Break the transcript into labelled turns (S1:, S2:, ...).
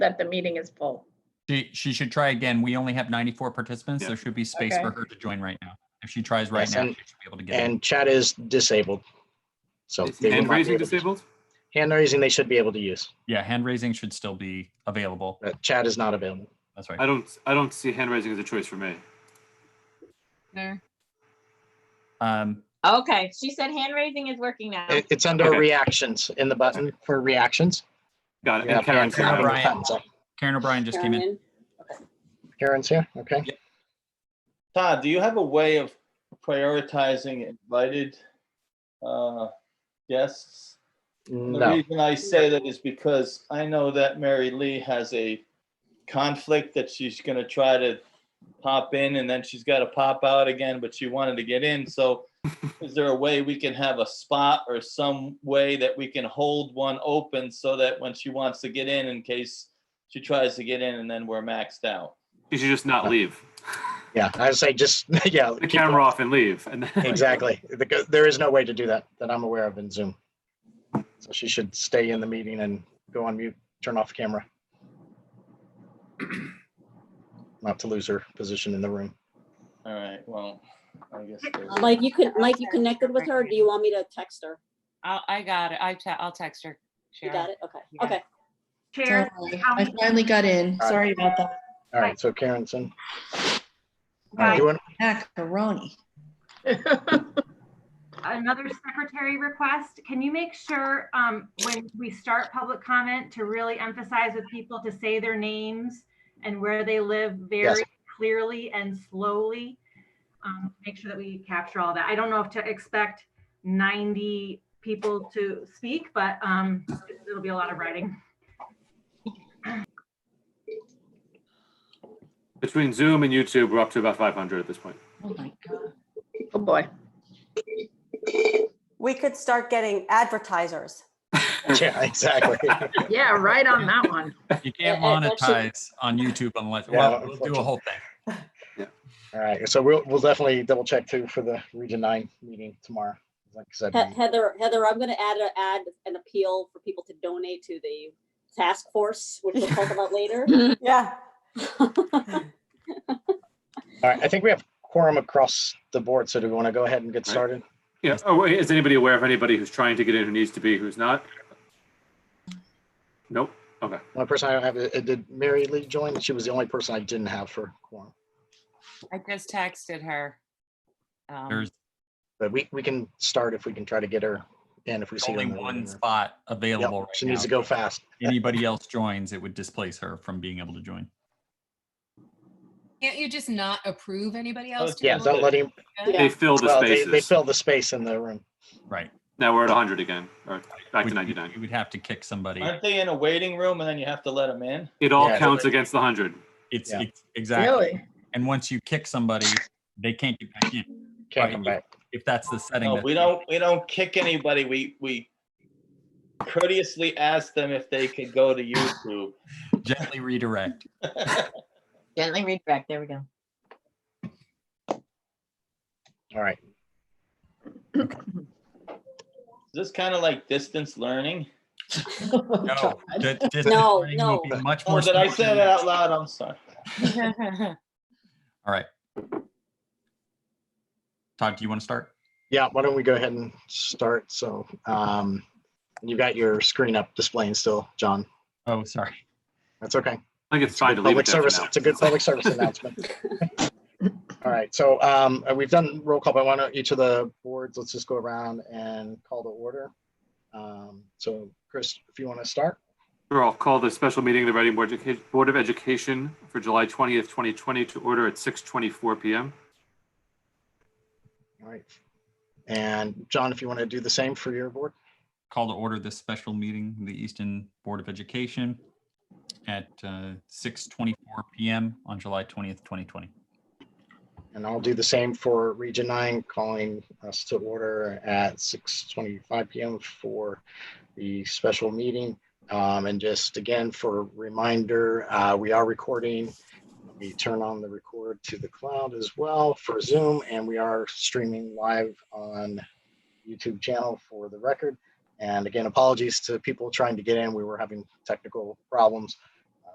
S1: that the meeting is full.
S2: She, she should try again. We only have 94 participants.
S3: Yeah.
S2: There should be space for
S1: Okay.
S2: her to join right now. If she tries right
S4: Yes,
S2: now, she
S4: and-
S2: should be able to get in.
S4: And chat is disabled. So. they will
S3: Hand
S4: not be
S3: raising
S4: able to-
S3: disabled?
S4: Hand raising, they should be able to use.
S2: Yeah, hand raising should still be available.
S4: but Chat is not available.
S2: That's right.
S3: I don't, I don't see hand raising as a choice for me.
S5: There.
S2: Um,
S5: Okay, she said hand raising is working now.
S4: It- It's under
S3: Okay.
S4: reactions in the button for reactions.
S3: Got it.
S4: Yeah,
S3: Uh, And Karen's
S4: Karen,
S2: Karen
S3: not.
S2: O'Brien.
S4: buttons up.
S2: Karen O'Brien just came in.
S6: Karen,
S4: Karen's here, okay.
S7: Todd, do you have a way of prioritizing invited uh, guests? The
S4: No,
S7: reason I say that is because I know that Mary Lee has a conflict that she's gonna try to pop in and then she's gotta pop out again, but she wanted to get in, so is there a way we can have a spot or some way that we can hold one open so that when she wants to get in, in case she tries to get in and then we're maxed out?
S3: You should just not leave.
S4: yeah, I would say just, yeah.
S3: The
S4: keep
S3: camera off and leave. And then-
S4: going. Exactly. Because There is no way to do that, that I'm aware of in Zoom. So she should stay in the meeting and go on mute, turn off camera. Not to lose her position in the room.
S7: All right, well, I guess. there's-
S6: Like you could, like you connected with her, or do you want me to text her?
S8: I'll, I got it. I te- I'll text her.
S6: You
S8: Sharon.
S6: got it? Okay,
S8: Yeah.
S6: okay.
S9: Sorry,
S10: Chair, how
S9: I
S10: many-
S9: finally got in.
S4: right.
S9: Sorry about that.
S4: All right, so Karen's in.
S10: Right.
S4: You want-
S9: Macaroni.
S10: another secretary request, can you make sure um, when we start public comment to really emphasize with people to say their names and where they live very clearly and slowly? Um, Make sure that we capture all that. I don't know if to expect 90 people to speak, but um, it'll be a lot of writing.
S3: Between Zoom and YouTube, we're up to about 500 at this point.
S9: Oh my God.
S1: Oh, boy.
S11: We could start getting advertisers.
S4: Yeah, exactly.
S1: Yeah, right on that one.
S2: You can't
S6: Yeah, that- that should-
S2: monetize on YouTube unless,
S4: Yeah,
S2: well, we'll do a whole thing.
S4: All right, so we'll, we'll definitely double check too for the Region Nine meeting tomorrow. Like I said,
S6: He-
S4: we-
S6: Heather, Heather, I'm gonna add, a- add an appeal for people to donate to the task force, which we'll talk about later.
S11: Yeah.
S4: all right, I think we have quorum across the board, so do we want to go ahead and get
S3: Right.
S4: started?
S3: Yeah. Oh, wait, is anybody aware of anybody who's trying to get in who needs to be, who's not? Nope. Okay.
S4: One person I don't have, uh, did Mary Lee join? She was the only person I didn't have for quorum.
S8: I just texted her. Um,
S2: There's
S4: But we, we can start if we can try to get her in if we see. her
S2: only
S4: in the
S2: one
S4: room.
S2: spot
S4: Yep,
S2: available
S4: She
S2: right
S4: needs to
S2: now.
S4: go fast.
S2: Anybody else joins, it would displace her from being able to join.
S12: Can't you just not approve anybody
S7: Oh,
S12: else? to
S4: Yeah,
S12: go?
S7: so-
S4: don't let him,
S3: They fill the
S4: well, they, they
S3: spaces.
S4: fill the space in the room.
S2: Right.
S3: Now we're at 100 again, or back to
S2: Would-
S3: 99.
S2: You would have to kick somebody.
S7: Aren't they in a waiting room and then you have to let them in?
S3: It all
S4: Yeah.
S3: counts against the 100.
S2: It's,
S4: Yeah.
S2: it's exactly.
S1: Really?
S2: And once you kick somebody, they can't get back in.
S4: Can't
S2: Right.
S4: come back.
S2: If that's the setting.
S7: No,
S2: that-
S7: we don't, we don't kick anybody. We, we courteously ask them if they could go to YouTube.
S2: Gently redirect.
S5: Gently read back. There we go.
S4: All right.
S7: Is this kind of like distance learning?
S2: No. di- distance
S6: No,
S2: learning will
S6: no.
S2: be Much
S7: Oh,
S2: more.
S7: did I
S2: simpler
S7: say
S2: than
S7: that out loud? I'm sorry.
S2: All right. Todd, do you want to start?
S4: Yeah, why don't we go ahead and start? So, um, you've got your screen up displaying still, John.
S2: Oh, sorry.
S4: That's okay.
S3: I think it's fine to leave it
S4: Public
S3: there for
S4: service,
S3: now.
S4: it's a good public service announcement. All right, so um, uh, we've done roll call, but why don't each of the boards, let's just go around and call to order. Um, So Chris, if you want to start,
S3: Sure, I'll call the special meeting of the Reading Board Educa- Board of Education for July 20th, 2020 to order at 6:24 PM.
S4: all right. And John, if you want to do the same for your board,
S2: Call to order this special meeting, of the Easton Board of Education at uh, 6:24 PM on July 20th, 2020.
S4: and I'll do the same for Region 9, calling us to order at 6:25 PM for the special meeting. Um, And just again, for reminder, uh, we are recording We turn on the record to the cloud as well for Zoom, and we are streaming live on YouTube channel for the record. And again, apologies to people trying to get in. We were having technical problems.